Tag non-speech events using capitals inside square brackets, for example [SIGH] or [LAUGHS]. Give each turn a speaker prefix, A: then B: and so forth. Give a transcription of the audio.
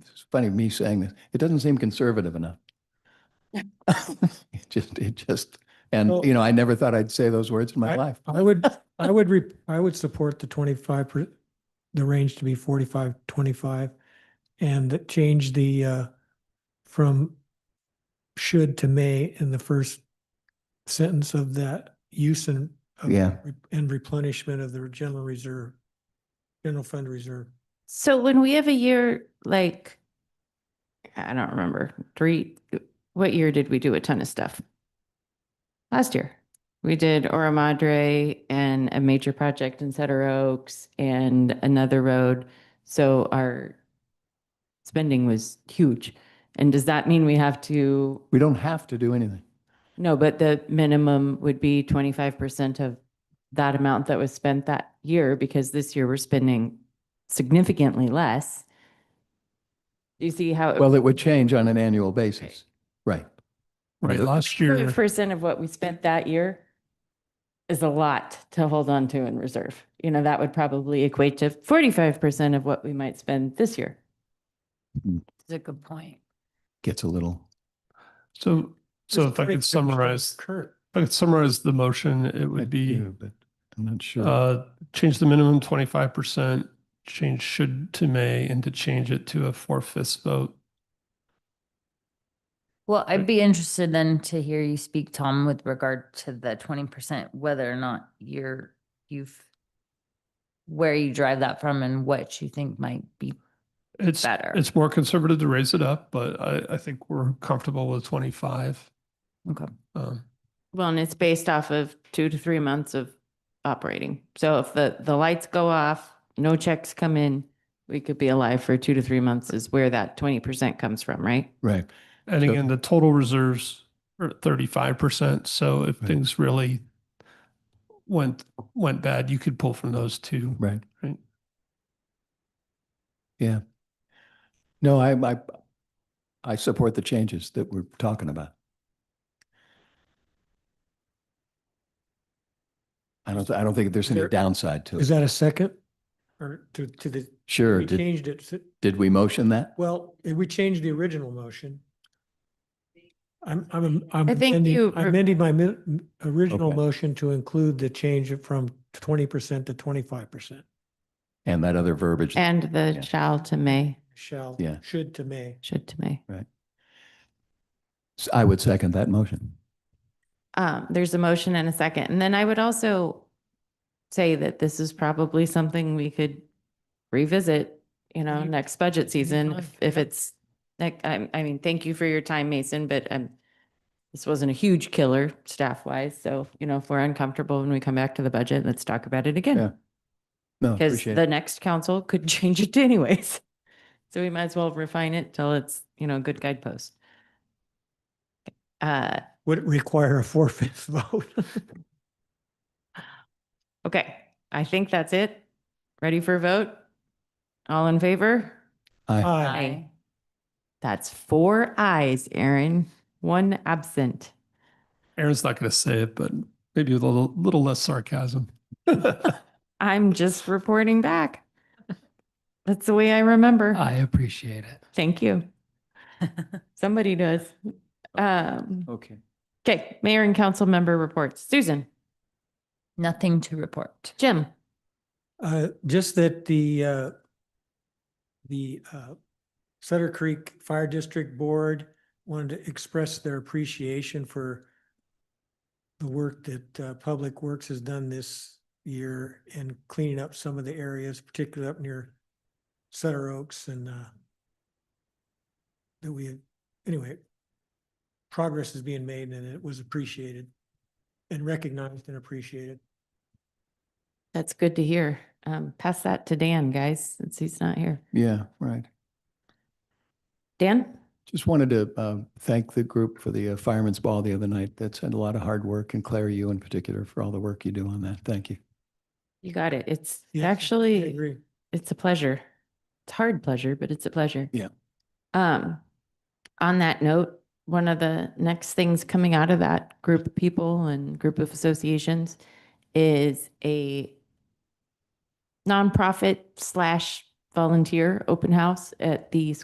A: it's funny me saying this, it doesn't seem conservative
B: [LAUGHS]
A: enough. It just, it just, and
B: Well-
A: you know, I never thought I'd say those words in my life.
B: I would, I would, re- I would support the twenty-five, per- the range to be forty-five, twenty-five. And that change the, uh, from should to may in the first sentence of that use and. of-
A: Yeah.
B: And replenishment of the general reserve, general fund reserve.
C: So when we have a year like, I don't remember, three, what year did we do a ton of stuff? Last year, we did Ora Madre and a major project in Sutter Oaks and another road. So our spending was huge. And does that mean we have to,
A: We don't have to do anything.
C: no, but the minimum would be twenty-five percent of that amount that was spent that year because this year we're spending significantly less. Do you see how?
A: Well, it would change on an annual basis. Right.
D: Right,
A: But
D: last
C: Twenty
D: year,
C: percent of what we spent that year is a lot to hold on to in reserve. You know, that would probably equate to forty-five percent of what we might spend this year.
E: That's a good point.
A: Gets a little,
D: so, so if I could summarize, if
B: Kurt,
D: I could summarize the motion, it
A: I
D: would be,
A: do, but I'm not sure.
D: uh, change the minimum twenty-five percent, change should to may, and to change it to a four-fifths vote.
E: Well, I'd be interested then to hear you speak, Tom, with regard to the twenty percent, whether or not you're, you've, where you drive that from and what you think might be.
D: It's,
E: Better.
D: it's more conservative to raise it up, but I, I think we're comfortable with twenty-five.
E: Okay.
D: Um,
C: Well, and it's based off of two to three months of operating. So if the, the lights go off, no checks come in, we could be alive for two to three months is where that twenty percent comes from, right?
A: Right.
D: And
A: So-
D: again, the total reserves are thirty-five percent, so if
A: Right.
D: things really went, went bad, you could pull from those two.
A: Right.
D: Right.
A: Yeah. No, I, I, I support the changes that we're talking about. I don't, I don't think there's any
B: There-
A: downside to
B: is
A: it.
B: that a second? Or to, to the,
A: Sure.
B: we
A: Did,
B: changed it, to-
A: did we motion that?
B: well, we changed the original motion. I'm, I'm, I'm
C: I think
B: amending,
C: you
B: I'm
C: re-
B: amending my mi- m- original
A: Okay.
B: motion to include the change from twenty percent to twenty-five percent.
A: And that other verbiage.
C: And the
A: Yeah.
C: shall to may,
B: Shall,
A: Yeah.
B: should to may.
C: should to may.
A: S- I would second that motion.
C: Um, there's a motion and a second. And then I would also say that this is probably something we could revisit, you know,
E: Any-
C: next budget season
E: time.
C: if- if it's, like, I, I mean, thank you for your time, Mason, but um, this wasn't a huge killer staff wise. So, you know, if we're uncomfortable when we come back to the budget, let's talk about it
A: Yeah,
C: again.
A: No,
C: Because
A: appreciate
C: the
A: it.
C: next council could [LAUGHS] change it anyways. So we might as well refine it till it's, you know, a good guidepost. Uh,
B: Would it require a four-fifths
C: [LAUGHS]
B: vote?
C: Okay, I think that's it. Ready for a vote? All in favor?
A: Aye.
B: Aye.
E: I
C: That's four ayes, Aaron, one absent.
D: Aaron's not gonna say it, but maybe with a little, little less sarcasm.
C: I'm just reporting back. That's the way I
B: Uh.
C: remember.
D: appreciate it.
B: [LAUGHS]
C: Thank you. Somebody does. Um,
A: Okay.
C: okay, mayor and council member reports. Susan,
E: Nothing to report.
C: Jim,
B: Uh, just that the, uh, the, uh, Sutter Creek Fire District Board wanted to express their appreciation for the work that, uh, Public Works has done this year in cleaning up some of the areas, particularly up near Sutter Oaks and, uh, that we, anyway, progress is being made and it was appreciated and recognized and appreciated.
C: that's good to hear. Um, pass that to Dan, guys, since he's not here.
A: Yeah, right.
C: Dan?
A: Just wanted to uh, thank the group for the uh, Fireman's Ball the other night. That's had a lot of hard work, and Claire, you in particular, for all the work you do on that. Thank you.
C: You got it. It's
B: Yes, I I
C: actually,
B: agree.
C: it's a pleasure. It's hard pleasure, but it's a pleasure.
A: Yeah.
C: Um, on that note, one of the next things coming out of that group of people and group of associations is a nonprofit slash volunteer open house at the